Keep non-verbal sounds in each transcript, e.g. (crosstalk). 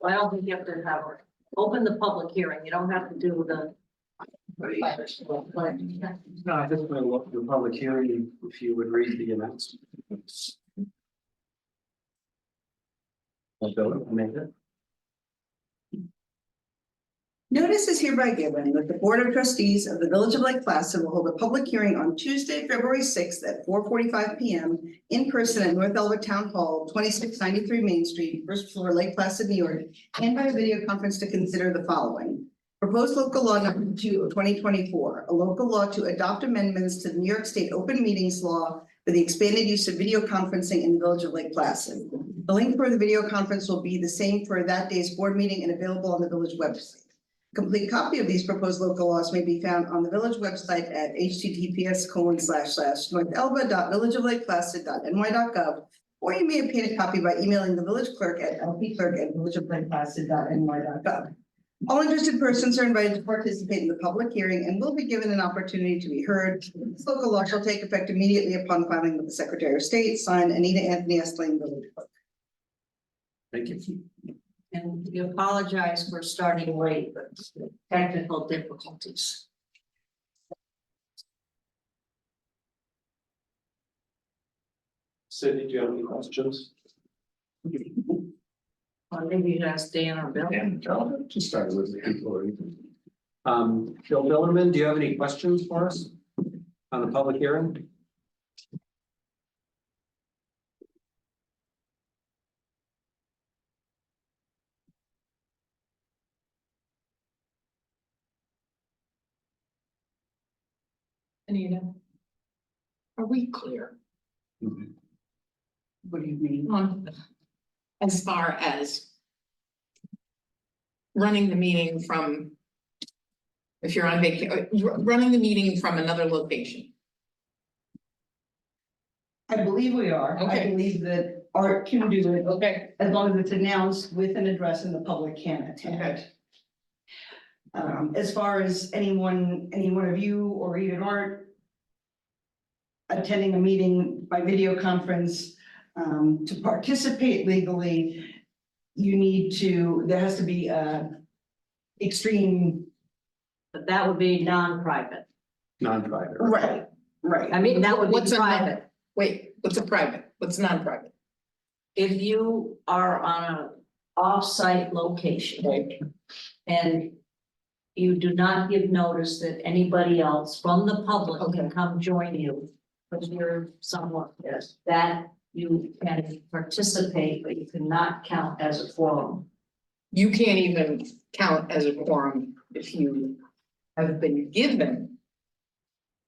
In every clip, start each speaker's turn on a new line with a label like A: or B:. A: Well, I don't think you have to have, open the public hearing, you don't have to do the.
B: No, I think we'll look the public hearing, if you would read the announcements. I'll go, Amanda.
C: Notice is hereby given that the Board of Trustees of the Village of Lake Placid will hold a public hearing on Tuesday, February sixth at four forty-five P M in person at North Elbert Town Hall, twenty-six ninety-three Main Street, first floor, Lake Placid, New York, and by video conference to consider the following. Proposed local law number two of twenty twenty-four, a local law to adopt amendments to the New York State Open Meetings Law for the expanded use of video conferencing in the Village of Lake Placid. The link for the video conference will be the same for that day's board meeting and available on the village website. Complete copy of these proposed local laws may be found on the village website at https colon slash slash Or you may obtain a copy by emailing the village clerk at lpclerk@villageoflakeplacid.ny.gov. All interested persons are invited to participate in the public hearing and will be given an opportunity to be heard. This local law shall take effect immediately upon filing with the Secretary of State, signed Anita Anthony Estling, village clerk.
B: Thank you.
A: And we apologize for starting late, but technical difficulties.
B: Cindy, do you have any questions?
A: Or maybe you should ask Dan or Bill.
B: To start with, Um, Bill Billerman, do you have any questions for us on the public hearing?
D: Anita. Are we clear
C: What do you mean?
D: on, as far as running the meeting from, if you're on vacation, running the meeting from another location?
E: I believe we are. I
D: Okay.
E: believe that Art can do it
D: Okay.
E: as long as it's announced with an address and the public can attend. Um, as far as anyone, any one of you or even Art attending a meeting by video conference, um, to participate legally, you need to, there has to be a extreme.
A: But that would be non-private.
B: Non-private.
E: Right. Right.
A: I mean, that would
D: What's
A: be
D: a non-
A: private.
D: Wait, what's a private? What's non-private?
A: If you are on a off-site location
D: Right.
A: and you do not give notice that anybody else from the public can
D: Okay.
A: come join you, because you're somewhat, yes, that you can participate, but you cannot count as a forum.
D: You can't even count as a quorum if you have been given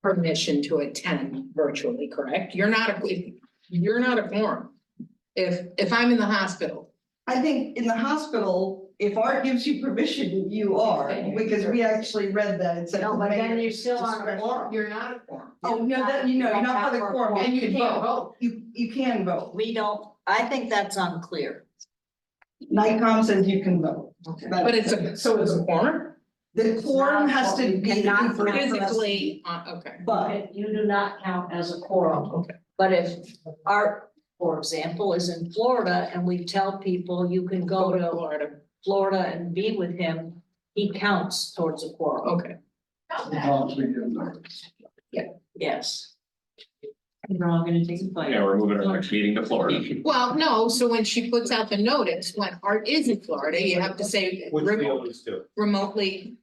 D: permission to attend virtually, correct? You're not, a you're not a quorum. If, if I'm in the hospital
E: I think in the hospital, if art gives you permission, you are, because we actually read that, it said.
A: No, but then you're still on a
E: discretion.
A: forum.
D: You're not a quorum.
E: Oh, no, that, you know, you're not on the quorum,
D: And you can't vote.
E: You, you can vote,
A: We don't, I think that's unclear.
E: NICOM says you can vote.
A: Okay.
D: But it's a, so it's a quorum?
E: The quorum has to
A: You
E: be.
A: cannot
D: Physically, uh, okay.
E: But
A: You do not count as a quorum.
D: Okay.
A: But if Art, for example, is in Florida and we tell people you can go to
D: Florida.
A: Florida and be with him, he counts towards a quorum.
D: Okay.
A: Yes.
F: Yeah, we're moving our next meeting to Florida.
D: Well, no, so when she puts out the notice, when Art is in Florida, you have to say
B: Which we
D: remote-
B: always do.
D: remotely.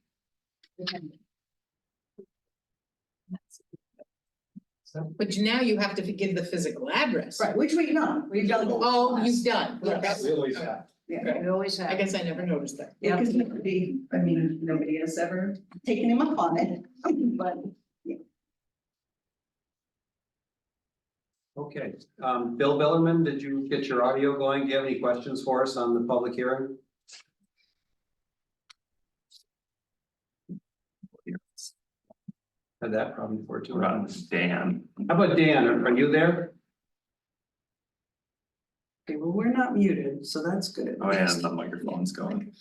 D: But now you have to give the physical address.
E: Right, which we've done, we've done. both.
D: Oh, you've done.
E: Yes.
B: We always have.
A: We always have.
D: I guess I never noticed that.
E: Yeah, because nobody, I mean, nobody has ever taken him up on it, (laughs) but.
B: Okay, um, Bill Billerman, did you get your audio going? Do you have any questions for us on the public hearing? Had that problem before too.
F: We're on Dan.
B: How about Dan? Are are you there?
C: Okay, well, we're not muted, so that's good.
F: Oh, yeah, the microphone's going.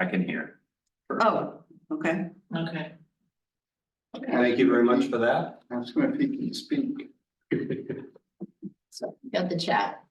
F: I can hear.
C: Oh, okay.
A: Okay.
B: Thank you very much for that.
G: Ask him if he can speak.
D: Got the chat.